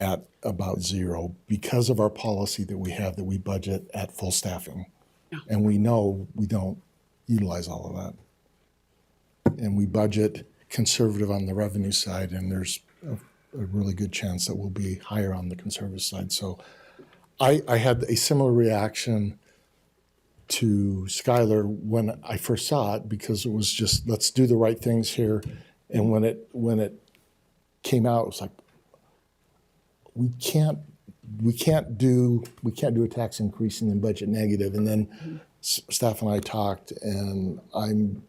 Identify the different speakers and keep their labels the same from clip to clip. Speaker 1: at about zero because of our policy that we have that we budget at full staffing. And we know we don't utilize all of that. And we budget conservative on the revenue side, and there's a, a really good chance that we'll be higher on the conservative side. So I, I had a similar reaction to Skylar when I first saw it because it was just let's do the right things here. And when it when it came out, it was like we can't we can't do we can't do a tax increase and then budget negative. And then s staff and I talked, and I'm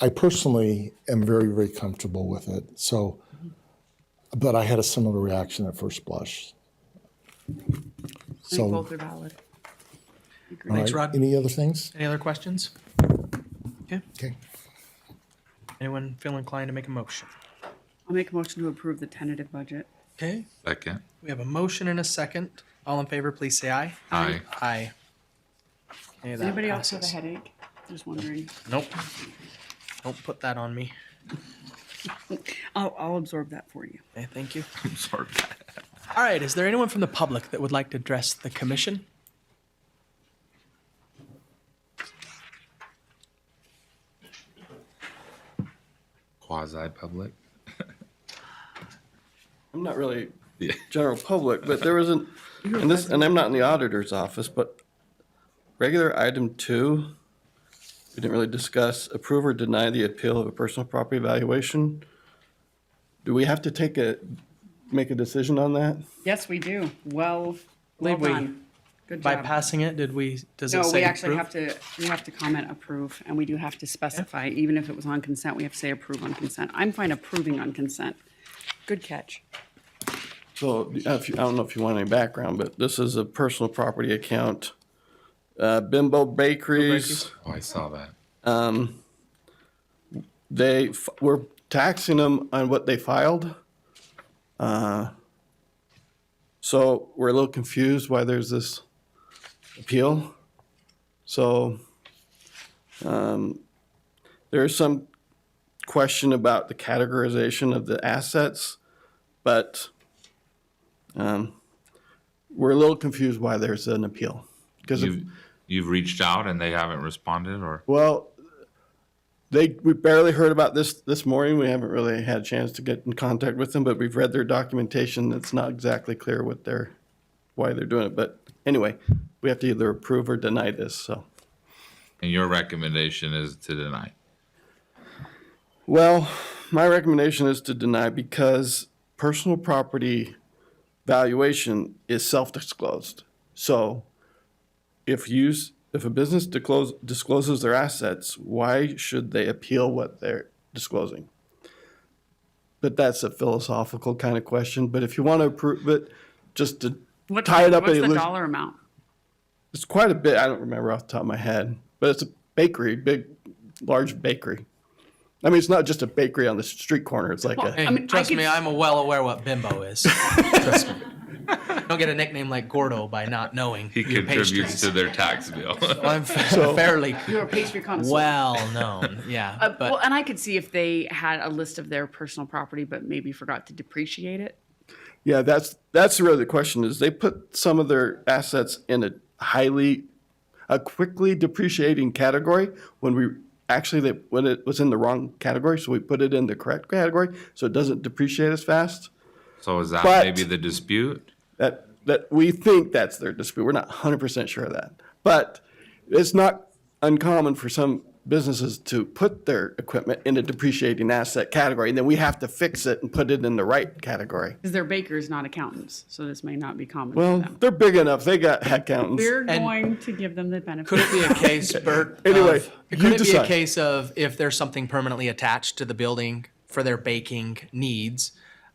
Speaker 1: I personally am very very comfortable with it. So, but I had a similar reaction at first blush.
Speaker 2: I
Speaker 1: So-
Speaker 2: think both are valid.
Speaker 3: Thanks,
Speaker 1: All right,
Speaker 3: Rod.
Speaker 1: Any other things?
Speaker 3: Any other questions? Okay,
Speaker 1: Okay.
Speaker 3: anyone feel inclined to make a motion?
Speaker 2: I'll make a motion to approve the tentative budget.
Speaker 3: Okay,
Speaker 4: Second.
Speaker 3: we have a motion and a second. All in favor, please say aye.
Speaker 4: Aye.
Speaker 3: Aye. Okay,
Speaker 2: Does
Speaker 3: that
Speaker 2: anybody else have a
Speaker 3: passes.
Speaker 2: headache? Just wondering.
Speaker 3: Nope. Don't put that on me.
Speaker 2: I'll, I'll absorb that for you.
Speaker 3: Okay, thank you.
Speaker 4: I'm sorry.
Speaker 3: All right, is there anyone from the public that would like to address the commission?
Speaker 4: Quasi-public.
Speaker 5: I'm not really
Speaker 4: Yeah.
Speaker 5: general public, but there wasn't, and this, and I'm not in the auditor's office, but regular item two, we didn't really discuss approve or deny the appeal of a personal property valuation. Do we have to take a, make a decision on that?
Speaker 2: Yes, we do. Well, well
Speaker 3: Did we-
Speaker 2: done. Good
Speaker 3: By
Speaker 2: job.
Speaker 3: passing it, did we, does it
Speaker 2: No, we
Speaker 3: say
Speaker 2: actually have
Speaker 3: approve?
Speaker 2: to, we have to comment approve, and we do have to specify, even if it was on consent, we have to say approve on consent. I'm fine approving on consent. Good catch.
Speaker 5: So, if you, I don't know if you want any background, but this is a personal property account. Uh, Bimbo Bakeries.
Speaker 4: Oh, I saw that.
Speaker 5: they f- were taxing them on what they filed. Uh, so we're a little confused why there's this appeal. So um, there is some question about the categorization of the assets, but um, we're a little confused why there's an appeal. Because
Speaker 4: You've, you've reached out and they haven't responded or?
Speaker 5: well, they, we barely heard about this this morning. We haven't really had a chance to get in contact with them, but we've read their documentation. It's not exactly clear what they're, why they're doing it. But anyway, we have to either approve or deny this, so.
Speaker 4: And your recommendation is to deny.
Speaker 5: Well, my recommendation is to deny because personal property valuation is self-disclosed. So if use, if a business disclose, discloses their assets, why should they appeal what they're disclosing? But that's a philosophical kind of question, but if you want to approve it, just to
Speaker 2: What-
Speaker 5: tie it up.
Speaker 2: What's
Speaker 5: and
Speaker 2: the
Speaker 5: lose-
Speaker 2: dollar amount?
Speaker 5: It's quite a bit, I don't remember off the top of my head, but it's a bakery, big, large bakery. I mean, it's not just a bakery on the street corner, it's like a.
Speaker 3: Hey,
Speaker 2: I mean, I
Speaker 3: trust
Speaker 2: could-
Speaker 3: me, I'm well aware what bimbo is. Trust me. Don't get a nickname like Gordo by not knowing
Speaker 4: He
Speaker 3: your
Speaker 4: contributes
Speaker 3: pastries.
Speaker 4: to their tax bill.
Speaker 3: I'm fairly
Speaker 2: You're a pastry connoisseur.
Speaker 3: well known, yeah,
Speaker 2: Uh, well,
Speaker 3: but
Speaker 2: and I could see if they had a list of their personal property, but maybe forgot to depreciate it.
Speaker 5: Yeah, that's that's really the question is they put some of their assets in a highly a quickly depreciating category when we actually they when it was in the wrong category, so we put it in the correct category so it doesn't depreciate as fast.
Speaker 4: So is that
Speaker 5: But-
Speaker 4: maybe the dispute?
Speaker 5: That that we think that's their dispute. We're not 100% sure of that. But it's not uncommon for some businesses to put their equipment in a depreciating asset category and then we have to fix it and put it in the right category.
Speaker 2: Because they're bakers, not accountants, so this may not be common for
Speaker 5: Well,
Speaker 2: them.
Speaker 5: they're big enough. They got accountants.
Speaker 2: We're
Speaker 3: And-
Speaker 2: going to give them the benefit.
Speaker 3: could it be a case, Bert?
Speaker 5: Anyway,
Speaker 3: of-
Speaker 5: you
Speaker 3: Could it be a
Speaker 5: decide.
Speaker 3: case of if there's something permanently attached to the building for their baking needs,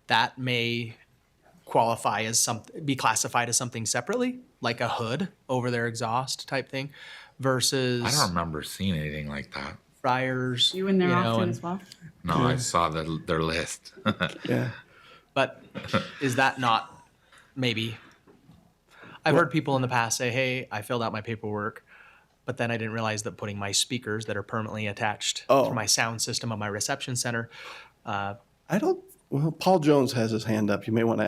Speaker 3: that may qualify as some, be classified as something separately, like a hood over their exhaust type thing
Speaker 4: I don't
Speaker 3: versus
Speaker 4: remember seeing anything like that.
Speaker 3: fryers.
Speaker 2: You in there
Speaker 3: know,
Speaker 2: often
Speaker 3: and-
Speaker 2: as well?
Speaker 4: No, I saw the, their list.
Speaker 5: Yeah.
Speaker 3: But is that not maybe? I've heard people in the past say, "Hey, I filled out my paperwork, but then I didn't realize that putting my speakers that are permanently attached
Speaker 5: Oh.
Speaker 3: to my sound system on my reception center." Uh,
Speaker 5: I don't, well, Paul Jones has his hand up. You may want to